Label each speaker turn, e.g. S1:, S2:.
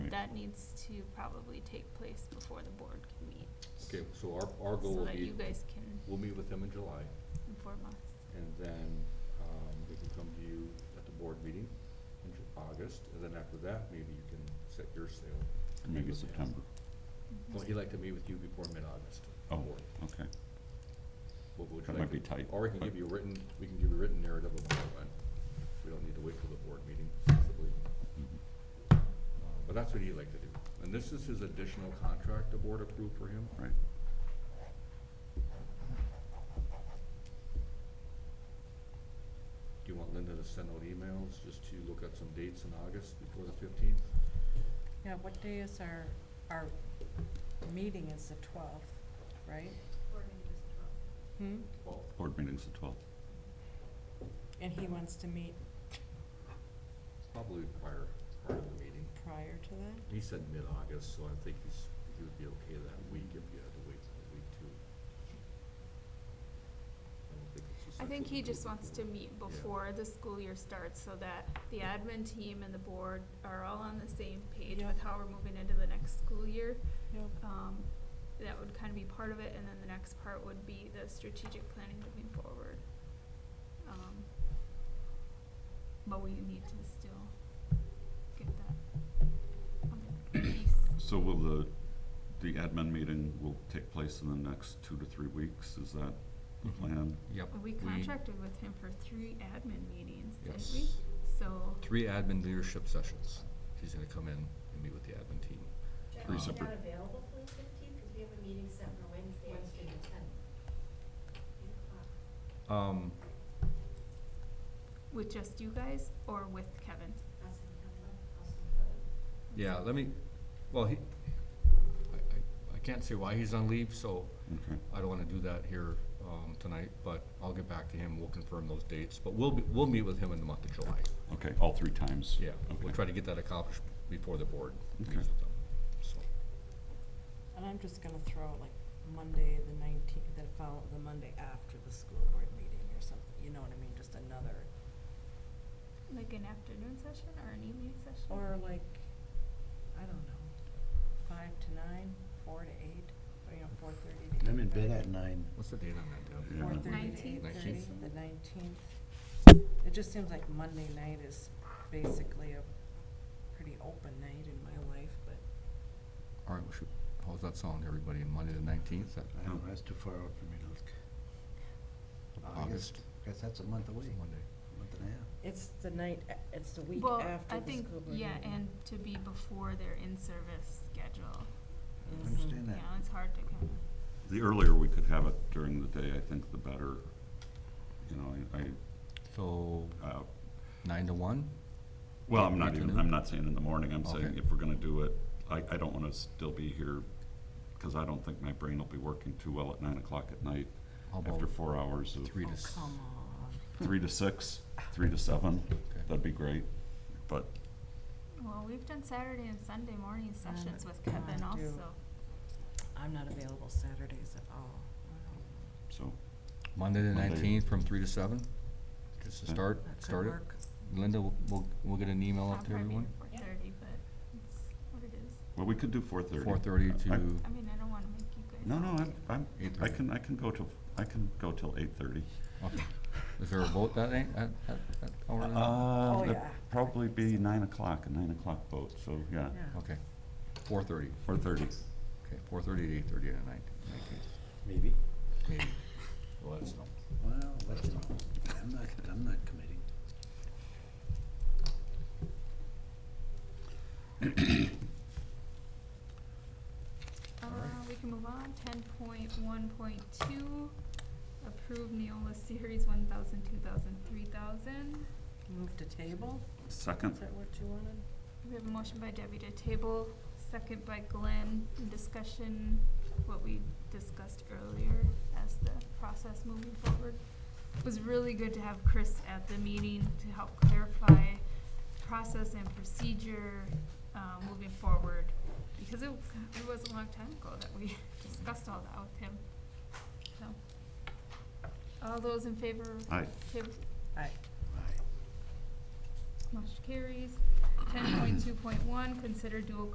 S1: that needs to probably take place before the board can meet.
S2: Okay, so our, our goal
S1: So
S2: will
S1: that
S2: be,
S1: you guys can
S2: we'll meet with them in July,
S1: inform us.
S2: and then, um, we can come to you at the board meeting in Ju- August, and then after that, maybe you can set your sale. and meet
S3: Maybe
S2: with the-
S3: September.
S2: Well, he'd like to meet with you before mid-August.
S3: Oh, okay.
S2: What would you
S3: That
S2: like
S3: might be
S2: to-
S3: tight,
S2: Or we can
S3: but-
S2: give you a written, we can give you a written narrative of our plan. We don't need to wait till the board meeting, possibly.
S3: Mhm.
S2: Uh, But that's what he'd like to do. And this is his additional contract the board approved for him.
S3: Right.
S2: Do you want Linda to send out emails just to look at some dates in August before the fifteenth?
S4: Yeah, what day is our, our meeting is the twelfth, right? Hmm,
S2: Well,
S3: Board meeting's the twelfth.
S4: and he wants to meet
S2: probably prior, prior to the meeting.
S4: prior to that?
S2: He said mid-August, so I think he's, he would be okay that week if you had to wait till the week two. I don't think it's
S1: I think
S2: essential
S1: he
S2: do it
S1: just wants to
S2: before.
S1: meet before the school year starts so that the admin team and the board are all on the same page
S4: Yeah.
S1: with how we're moving into the next school year.
S4: Yep.
S1: Um, that would kind of be part of it, and then the next part would be the strategic planning moving forward. Um, But we need to still get that other piece.
S3: So will the, the admin meeting will take place in the next two to three weeks? Is that the
S5: Mhm.
S3: plan?
S5: Yep.
S1: We contracted with him for three admin meetings, didn't we?
S5: Yes.
S1: So,
S5: Three admin leadership sessions. He's gonna come in and meet with the admin team.
S6: Jeff,
S3: Three
S6: are you
S3: separate-
S6: not available for the fifteenth, because we have a meeting set for Wednesday. Wednesday the tenth. Eight o'clock.
S5: Um,
S1: with just you guys or with Kevin?
S6: Us and Kevin, us and Kevin.
S5: yeah, let me, well, he, I, I, I can't say why he's on leave, so
S3: Okay.
S5: I don't wanna do that here, um, tonight, but I'll get back to him. We'll confirm those dates, but we'll, be- we'll meet with him in the month of July.
S3: Okay, all three times?
S5: Yeah, we'll
S3: Okay.
S5: try to get that accomplished before the board meets
S3: Okay.
S5: with them, so.
S4: And I'm just gonna throw out like Monday, the nineteenth, the follow, the Monday after the school board meeting or something, you know what I mean, just another,
S1: Like an afternoon session or an evening session?
S4: or like, I don't know, five to nine, four to eight, or you know, four thirty to eight
S7: I'm in bed at nine.
S5: What's the date on that, Deb?
S3: Yeah.
S4: Four thirty to eight
S1: Nineteenth.
S4: thirty,
S5: Nineteenth.
S4: the nineteenth. It just seems like Monday night is basically a pretty open night in my life, but
S5: All right, we should, how's that sound, everybody? Monday the nineteenth, that,
S7: I don't know, that's too far out for me to look.
S5: August.
S7: Guess that's a month away,
S5: it's
S7: month
S5: Monday.
S7: and a half.
S4: it's the night, a- it's the week
S1: Well,
S4: after
S1: I
S4: the
S1: think,
S4: school board
S1: yeah,
S4: meeting.
S1: and to be before their in-service schedule.
S7: I
S4: Mhm.
S7: understand
S1: You
S7: that.
S1: know, Mm, it's hard to kind of.
S3: The earlier we could have it during the day, I think the better. You know, I,
S5: So,
S3: I, uh,
S5: nine to one?
S3: well, I'm not
S5: Afternoon?
S3: even, I'm not saying in the morning, I'm saying
S5: Okay.
S3: if we're gonna do it, I, I don't wanna still be here, cause I don't think my brain will be working too well at nine o'clock at night
S5: How
S3: after
S5: about
S3: four hours of
S5: three to?
S4: Oh,
S5: s-
S4: come on.
S3: three to six, three to seven,
S5: Okay.
S3: that'd be great, but
S1: Well, we've done Saturday and Sunday morning
S4: Um,
S1: sessions with
S4: come on,
S1: Kevin
S4: do-
S1: also.
S4: I'm not available Saturdays at all.
S3: So,
S5: Monday the
S3: Monday.
S5: nineteenth from three to seven, just to
S3: Okay.
S5: start,
S4: That could
S5: start it.
S4: work.
S5: Linda, we'll- we'll, we'll get an email
S1: I'll
S5: out to
S1: probably be
S5: everyone.
S1: here four thirty, but it's what it is.
S3: well, we could do four thirty.
S5: Four thirty to,
S1: I mean, I don't wanna make you guys.
S3: No, no,
S1: all
S3: I'm,
S1: do-
S3: I'm, I
S5: 8:30.
S3: can, I can go till, I can go till eight thirty.
S5: okay. is there a vote that night, at, at, at, hour then?
S4: Oh,
S3: Uh, that'd
S4: yeah.
S3: probably be nine o'clock, a nine o'clock boat, so, yeah,
S4: Yeah.
S5: Okay, four thirty,
S3: four thirty.
S5: okay, four thirty to eight thirty on the night, nineteenth,
S7: Maybe.
S5: maybe, well, that's not.
S7: Well, let's, I'm not, I'm not committing.
S1: Uh,
S5: All right.
S1: we can move on, ten point one point two, approve Neola Series one thousand, two thousand, three thousand.
S4: Move to table,
S3: Second,
S4: is that what you wanted?
S1: We have a motion by Debbie to table, second by Glenn, discussion, what we discussed earlier as the process moving forward. It was really good to have Chris at the meeting to help clarify process and procedure, uh, moving forward. Because it, it was a long time ago that we discussed all that with him, so. All those in favor of
S3: Aye.
S1: table,
S4: Aye.
S7: Aye.
S1: Motion carries. Ten point two point one, consider dual